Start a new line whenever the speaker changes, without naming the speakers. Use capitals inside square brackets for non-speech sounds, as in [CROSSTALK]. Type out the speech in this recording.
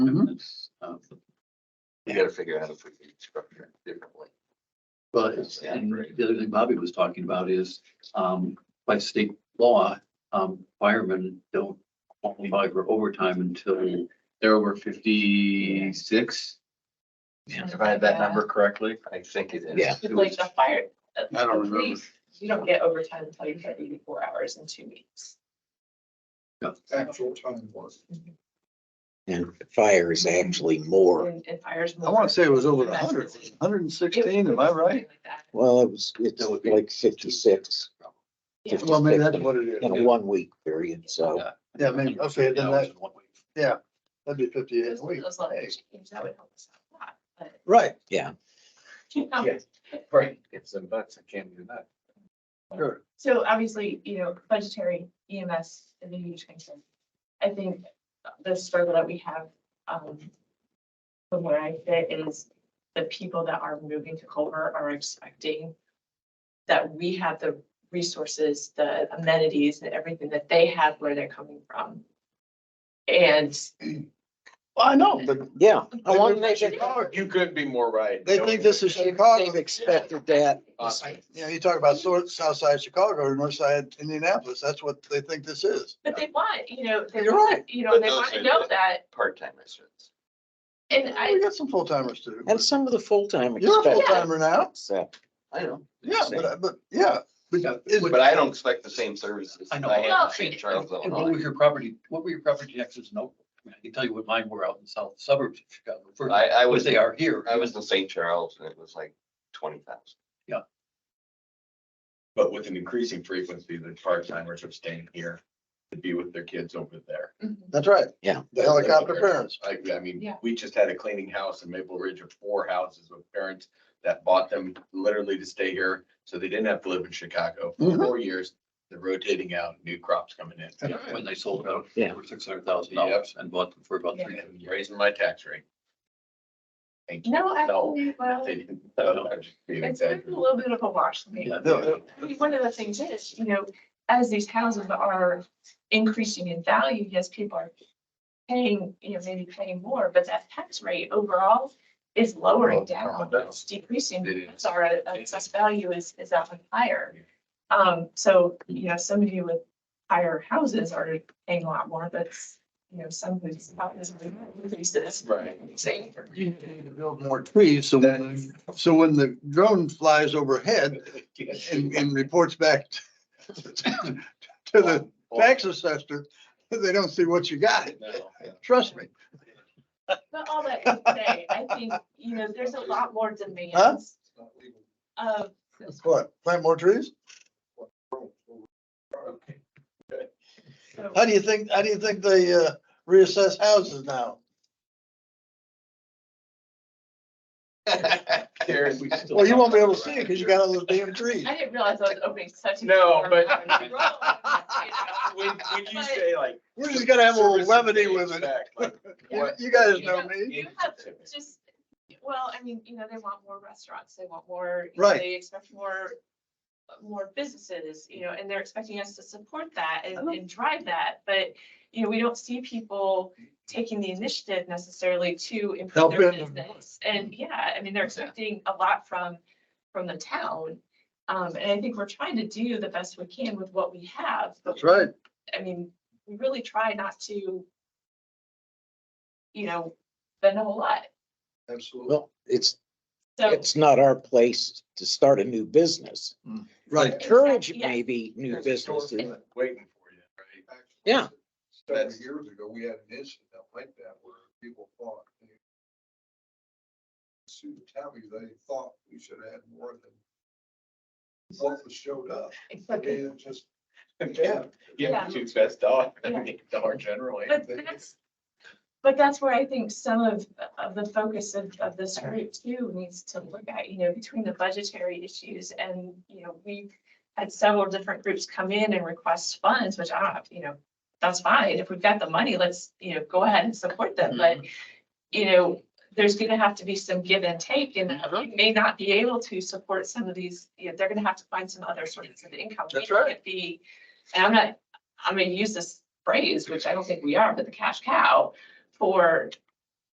uh,
You gotta figure out if we can structure it differently.
Well, it's- and the other thing Bobby was talking about is, um, by state law, um, firemen don't qualify for overtime until they're over fifty-six. If I had that number correctly.
I think it is.
Yeah.
It's like the fire. I
don't remember.
You don't get overtime until you've had eighty-four hours in two weeks.
actual time was.
And fire is actually more.
And and fires.
I want to say it was over
a
hundred, hundred and sixteen, am I right?
Well, it was, it's
That would be-
like fifty-six
Yeah.
Well, maybe that's what it is.
in a one week period, so.
Yeah, maybe, okay, then that,
Well,
that'd be fifty-eight
Those
a week.
those letters change, that would help us out a lot, but. [LAUGHS]
Right,
you know,
Yeah. Right, get some bucks, I can't do that.
sure.
So obviously, you know, budgetary EMS is a huge concern. I think the struggle that we have, um, from where I fit is the people that are moving to Culver are expecting that we have the resources, the amenities and everything that they have where they're coming from. And
Well, I know, but
Yeah, I
They
want
were
to make it,
Chicago.
You could be more right.
they think this is
they've
Chicago.
expected that.
Awesome.
You know, you talk about sort, south side Chicago or north side Indianapolis, that's what they think this is.
But they want, you know, they
You're
want, you know,
But
they
those
want to
are
know
the-
that.
Part-time residents.
And I,
We got some full timers too.
And some of the full-time
You're a full
expect.
timer now.
So,
I know.
Yeah, but, I- but, yeah. but
Yeah,
is-
But I don't expect the same services.
I know.
I have
Well,
in St. Charles,
What
Illinois.
were your property, what were your property taxes? No, I mean, I can tell you what mine were out in the south suburbs of Chicago. for-
I, I
What
was,
they are here.
I was in St. Charles and it was like twenty thousand.
But with an increasing frequency, the part-timers are staying here to be with their kids over there.
That's right.
Yeah.
The helicopter parents.
I, I mean,
Yeah.
we just had a cleaning house in Maple Ridge of four houses with parents that bought them literally to stay here. So they didn't have to live in Chicago for
Mhm.
Mm-hmm.
four years. They're rotating out, new crops coming in
Yeah, When they sold it out
Yeah.
for six hundred thousand dollars and bought them for about three
and
hundred.
raising my tax rate. Thank you.
no, actually, well.
They didn't. I'm just being
It's been a
exaggerated.
little bit of a wash for me.
Yeah.
The-
I mean, one of the things is, you know, as these houses are increasing in value, yes, people are paying, you know, maybe paying more, but that tax rate overall is lowering down, it's decreasing.
It is.
It's our assessed value is, is that one higher. Um, so, you know, some of you with higher houses are paying a lot more, but, you know, some whose houses increases.
Right.
Same.
You need to build more trees, so when, so when the drone flies overhead and, and reports back to the tax assessor, they don't see what you got,
No, yeah.
trust me.
But all that to say, I think, you know, there's a lot more
Huh?
demands of
What, plant more trees?
so-
How do you think, how do you think they, uh, reassess houses now?
Karen, we still-
Well, you won't be able to see it because you got all those damn trees.
I didn't realize I was opening such. a
No,
[LAUGHS]
but-
can of worms.
When, when you say like.
We're just gonna have a little
services
levity
they
with it.
expect, like,
You
what-
you guys know me.
You have just, well, I mean, you know, they want more restaurants, they want more. you know,
Right.
They expect more, more businesses, you know, and they're expecting us to support that and,
Uh-huh.
and drive that. But, you know, we don't see people taking the initiative necessarily to
Help
improve their
in.
business. And yeah, I mean, they're expecting a lot from, from the town. Um, and I think we're trying to do the best we can with what we have. but
That's right.
I mean, we really try not to, you know, spend a whole lot.
Absolutely.
well, it's,
So,
it's not our place to start a new business.
Hmm.
Right.
Encourage
Exactly, yeah.
maybe new businesses.
Waiting for you, right?
Yeah.
That's-
years ago, we had an incident like that where people thought. they- Sue Tabby, they thought we should have more than what was showed up. And just, yeah,
Yeah.
Yeah, two best dog, I
Yeah.
mean, dog generally.
but that's, but that's where I think some of, of the focus of, of this group too needs to look at, you know, between the budgetary issues and, you know, we had several different groups come in and request funds, which I don't, you know, that's fine. If we've got the money, let's, you know, go ahead and support them. But, you know, there's gonna have to be some give and take and we may not be able to support some of these, you know, they're gonna have to find some other sources of income. We
That's right.
can't Be, and I'm not, I'm gonna use this phrase, which I don't think we are, but the cash cow for